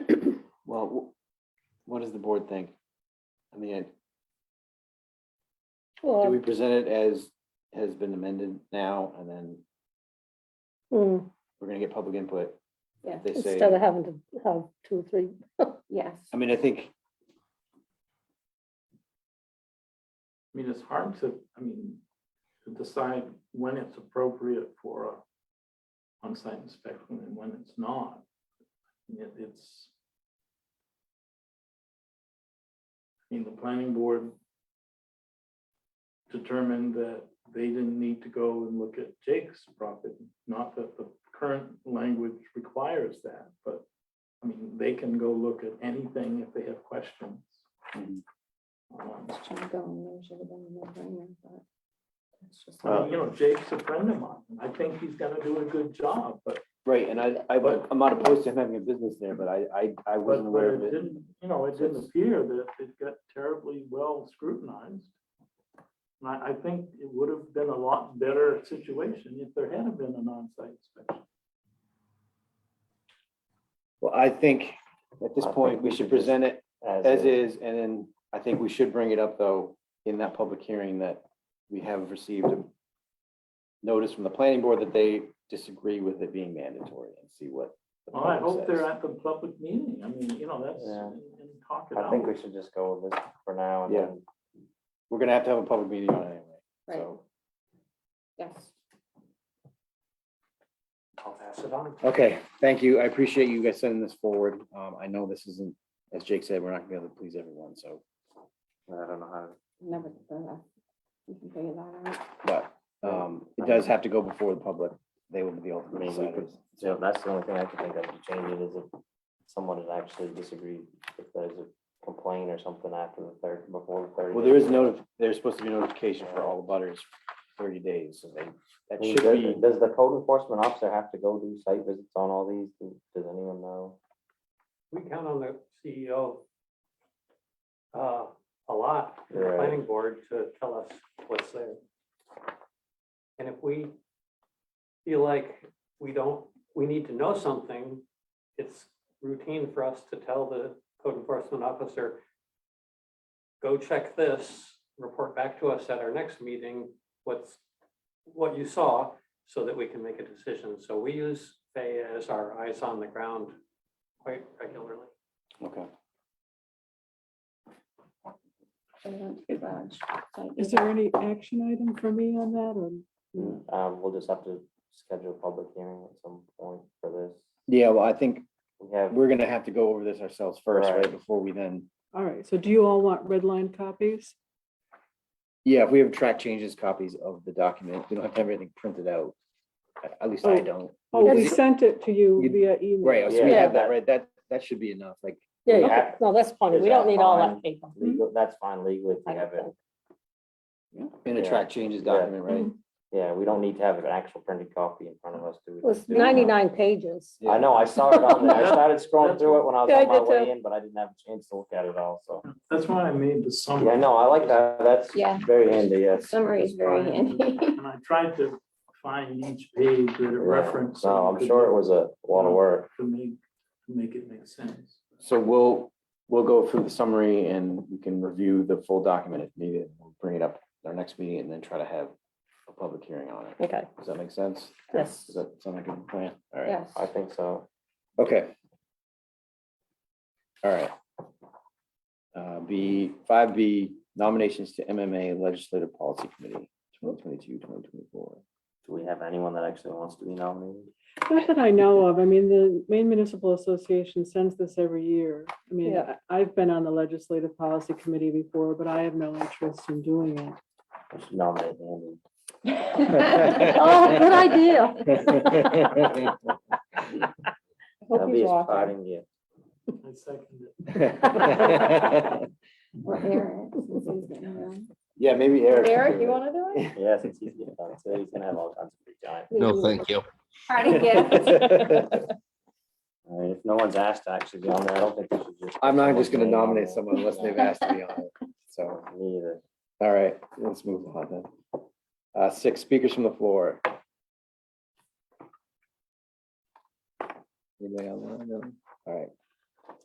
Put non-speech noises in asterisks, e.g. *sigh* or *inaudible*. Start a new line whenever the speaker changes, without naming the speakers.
Well, wh- what does the board think? I mean, do
Um,
we
Well,
present it as has been amended now and then
mm,
we're gonna get public input?
hmm, Yeah,
They say,
instead of having to have two, or
*laughs*
three,
Yes.
I mean, I think,
I mean, it's hard to, I mean, to decide when it's appropriate for a on-site inspection and when it's not. I mean, it- It's. I mean, the planning board determined that they didn't need to go and look at Jake's property. Not that the current language requires that, but, I mean, they can go look at anything if they have questions.
Mhm.
Um,
Just trying to go and there should have been a no-brainer, but it's just
I
Uh,
like-
mean, you know, Jake's a friend of mine. and I think he's gonna do a good job, but,
right, and I, I, would- I'm not opposed to him having a business there, but I, I, I
but
wasn't
but
aware
it
of it.
didn't, you know, it didn't
That's-
appear that it got terribly well scrutinized. And I, I think it would have been a lot better situation if there had been an on-site inspection.
Well, I think at this point, we should present it as is, and then I think we should bring it up though in that public hearing that we have received a notice from the planning board that they disagree with it being mandatory and see what. the
Well, I
public
hope they're
says.
at the public meeting. I mean, you know, that's,
Yeah.
and and talk it
I think
out.
we should just go with this for now and
Yeah.
then.
We're gonna have to have a public meeting on it anyway,
Right,
so.
yes.
I'll pass it on.
Okay, thank you. I appreciate you guys sending this forward. Um, I know this isn't, as Jake said, we're not gonna be able to please everyone, so,
I don't know how,
Never, uh, you can figure that out.
but, um, it does have to go before the public. They will be the ultimate
Maybe we could-
deciders.
you know, that's the only thing I can think of to change it is if someone had actually disagreed, if there's a complaint or something after the third, before the third.
Well, there is notif, there's supposed to be notification for all the butters thirty days, so they, that should be.
Does the code enforcement officer have to go do site visits on all these? Do- Does anyone know?
we count on the CEO uh, a lot, and the
Right.
planning board to tell us what's there. And if we feel like we don't, we need to know something, it's routine for us to tell the code enforcement officer, go check this, report back to us at our next meeting, what's, what you saw, so that we can make a decision. So we use Fay as our eyes on the ground quite regularly.
Okay.
They went to the garage, so
Is there any action item for me on that or?
Um, we'll just have to schedule a public hearing at some point for this.
Yeah, well, I think
We have,
we're gonna have to go over this ourselves first, right,
Right.
before we then,
All right, so do you all want red line copies?
yeah, if we have track changes copies of the document, we don't have to have everything printed out. At- At least I
Oh.
don't.
Oh, we
Is it-
sent it to you
You-
via email.
Right, so we
Yeah.
have that, right, that, that should be enough, like,
yeah,
Yeah.
okay, no, that's fine,
Is
we don't
that
need all
fine?
that paper.
legal, that's fine legally if
I
we have it.
don't
in a
Yeah.
track changes
Yeah.
document, right?
Yeah, we don't need to have an actual printed copy in front of us, do we?
It was
Do we?
ninety-nine pages.
Yeah.
I know, I saw it on there. I
Yeah.
started scrolling through it when I was
Yeah, I
on my
did
way
too.
in, but I didn't have a chance to look at it all, so.
That's why I made the summary.
Yeah, no, I like that. That's
Yeah.
very handy,
the
yes.
Summary is very
*laughs*
handy.
And I tried to find each page that it
Yeah.
referenced.
No, I'm sure it was a lot of work.
To make, to make it make sense.
So we'll, we'll go through the summary and we can review the full document if needed. We'll bring it up at our next meeting and then try to have a public hearing on it.
Okay,
Does that make sense?
yes.
Does that sound like a good plan? All right,
Yes. *laughs*
I *laughs* think so.
okay. All right. Uh, B, five B, nominations to MMA Legislative Policy Committee, 2022, 2024.
Do we have anyone that actually wants to be nominated?
Not that I know of. I mean, the Maine Municipal Association sends this every year. I mean,
Yeah.
I- I've been on the Legislative Policy Committee before, but I have no interest in doing it.
We should nominate Andy.
Oh, good idea.
That'll
Hope
be
he's
his
watching.
parting gift.
I second it.
Or Eric, since he's getting around.
Yeah, maybe Eric. can
Eric,
do
you
it. *laughs*
wanna do it?
Yeah, since he's getting done, so he's gonna have all kinds of free time.
No, thank you.
Party
*laughs*
gift.
I mean, if no one's asked to actually be on there, I don't think we should just.
I'm not just gonna
Someone's name on
nominate
there.
someone unless they've asked to be on it, so,
Me either.
all right, let's move on then. Uh, six speakers from the floor. Anybody on that? No? All right,